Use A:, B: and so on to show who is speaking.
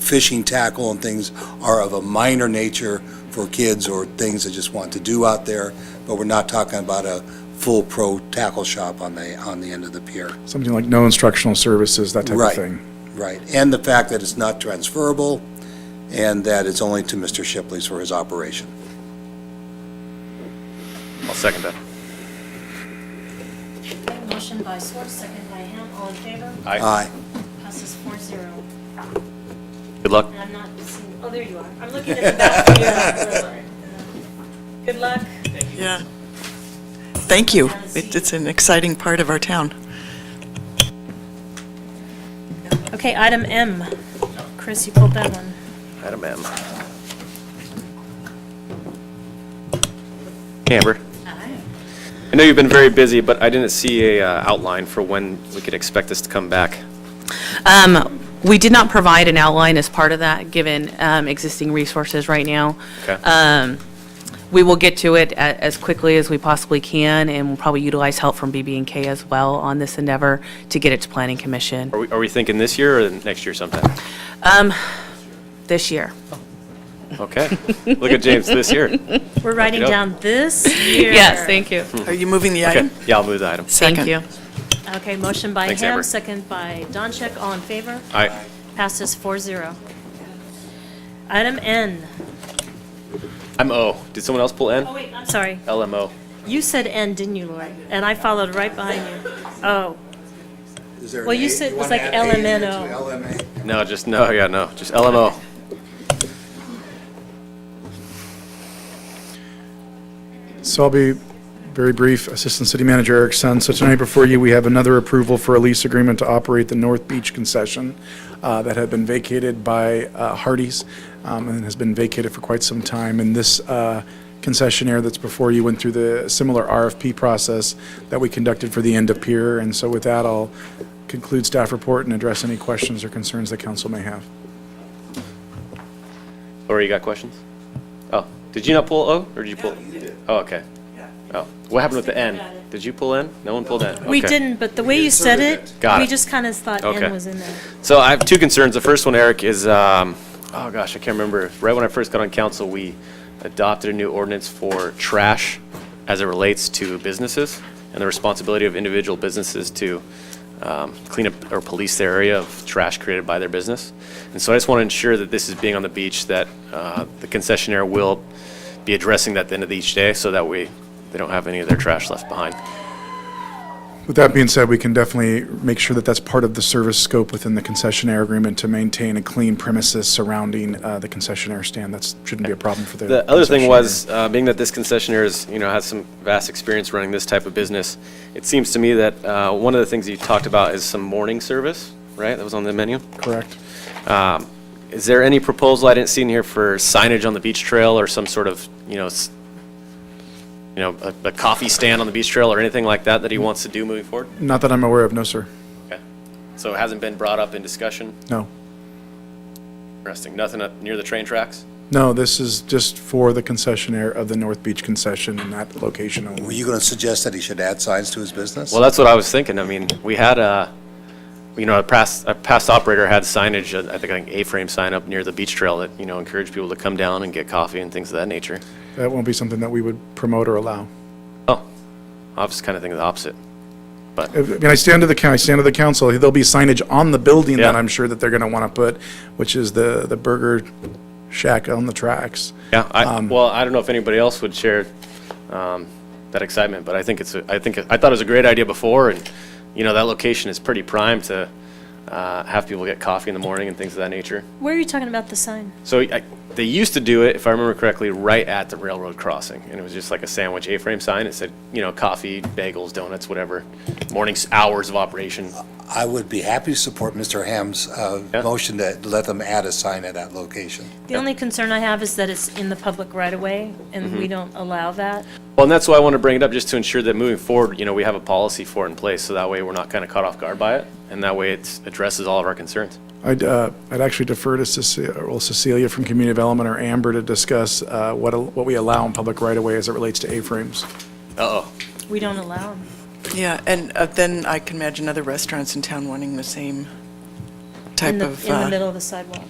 A: fishing tackle and things are of a minor nature for kids or things they just want to do out there, but we're not talking about a full pro tackle shop on the, on the end of the pier.
B: Something like no instructional services, that type of
A: Right.
B: thing.
A: Right, and the fact that it's not transferable, and that it's only to Mr. Shipley's for his operation.
C: I'll second that.
D: Motion by Swartz, second by Ham, all in favor?
A: Aye.
D: Passes four zero.
C: Good luck.
D: And I'm not seeing, oh, there you are. I'm looking at the back of your, uh, good luck.
E: Yeah. Thank you. It- It's an exciting part of our town.
D: Okay, item M. Chris, you pulled that one.
C: Item M. Amber,
D: Aye.
C: I know you've been very busy, but I didn't see a uh, outline for when we could expect this to come back.
F: We did not provide an outline as part of that, given um, existing resources right now.
C: Okay.
F: We will get to it a- as quickly as we possibly can, and we'll probably utilize help from BB&K as well on this endeavor to get it to Planning Commission
C: Are we, are we thinking this year or next year sometime?
F: this year.
C: Okay. Look at James, this year.
D: We're writing
C: Okey-doke.
D: down this year.
F: Yes, thank you.
E: Are you moving the
C: Okay,
E: item?
C: yeah, I'll move the item.
F: Thank
E: Second.
F: you.
D: Okay, motion by
C: Thanks,
D: Ham,
C: Amber.
D: second by Doncheck, all in favor?
C: Aye.
D: Passes four zero. Item N.
C: I'm O. Did someone else pull N?
D: Oh, wait, I'm sorry.
C: LMO.
D: You said N, didn't you, Lori? And I followed right behind you. Oh,
A: Is there an
D: Well, you
A: A?
D: said it was
A: wanna add
D: like
A: A into
D: LMNO.
A: LMA?
C: No, just, no, Oh, yeah, no, just LMO.
B: So I'll be very brief, Assistant City Manager Eric Sun. So tonight before you, we have another approval for a lease agreement to operate the North Beach concession uh, that had been vacated by uh, Hardee's um, and has been vacated for quite some time. And this uh, concessionaire that's before you went through the similar RFP process that we conducted for the end of pier. And so with that, I'll conclude staff report and address any questions or concerns that council may have.
C: Lori, you got questions? Oh, did you not pull O, or did you pull? Oh, okay. Oh, what happened with the N? Did you pull N? No one pulled N?
D: we
C: Okay.
D: didn't, but the way you said it,
C: Got
D: we
C: it.
D: just kind of thought
C: Okay.
D: N was in there.
C: So I have two concerns. The first one, Eric, is, um, oh gosh, I can't remember. Right when I first got on council, we adopted a new ordinance for trash as it relates to businesses and the responsibility of individual businesses to um, clean up or police their area of trash created by their business. And so I just want to ensure that this is being on the beach, that uh, the concessionaire will be addressing that at the end of each day so that we, they don't have any of their trash left behind.
B: With that being said, we can definitely make sure that that's part of the service scope within the concessionaire agreement to maintain a clean premises surrounding uh, the concessionaire stand. That shouldn't be a problem for the.
C: The other thing
B: concessionaire.
C: was, uh, being that this concessionaire is, you know, has some vast experience running this type of business, it seems to me that uh, one of the things you talked about is some morning service, right? That was on the menu.
B: Correct.
C: Is there any proposal I didn't see in here for signage on the beach trail or some sort of, you know, s- you know, a- a coffee stand on the beach trail or anything like that that he wants to do moving forward?
B: Not that I'm aware of, no, sir.
C: Okay. So it hasn't been brought up in discussion?
B: No.
C: Interesting. Nothing up near the train tracks?
B: No, this is just for the concessionaire of the North Beach concession in that location
A: Were
B: only.
A: you going to suggest that he should add signs to his business?
C: Well, that's what I was thinking. I mean, we had a, you know, a past, a past operator had signage, uh, I think, an A-frame sign up near the beach trail that, you know, encouraged people to come down and get coffee and things of that nature.
B: That won't be something that we would promote or allow.
C: Oh, I was kind of thinking the opposite.
B: I mean, I stand to the, coun- I stand to the council, there'll be signage on the building that
C: Yeah.
B: I'm sure that they're going to want to put, which is the, the burger shack on the tracks.
C: Yeah, I, well, I don't know if anybody else would share, um, that excitement, but I think it's, a- I think, I thought it was a great idea before, and, you know, that location is pretty prime to, uh, have people get coffee in the morning and things of that nature.
D: Where are you talking about the sign?
C: So I, they used to do it, if I remember correctly, right at the railroad crossing, and it was just like a sandwich A-frame sign. It said, you know, coffee, bagels, donuts, whatever, mornings, hours of operation.
A: I would be happy to support Mr. Ham's uh,
C: Yeah.
A: motion to let them add a sign at that location.
D: The only concern I have is that it's in the public right of way, and
C: Mm-hmm.
D: we don't allow that.
C: Well, and that's why I want to bring it up, just to ensure that moving forward, you know, we have a policy for it in place, so that way we're not kind of caught off guard by it, and that way it addresses all of our concerns.
B: I'd, uh, I'd actually defer to Cecilia, well, Cecilia from Community Development or Amber to discuss, uh, what, al- what we allow in public right-of-way as it relates to A-frames.
C: Uh-oh.
D: We don't allow them.
E: Yeah, and uh, then I can imagine other restaurants in town wanting the same
D: In
E: type
D: the,
E: of.
D: in the
E: uh,
D: middle of the sidewalk.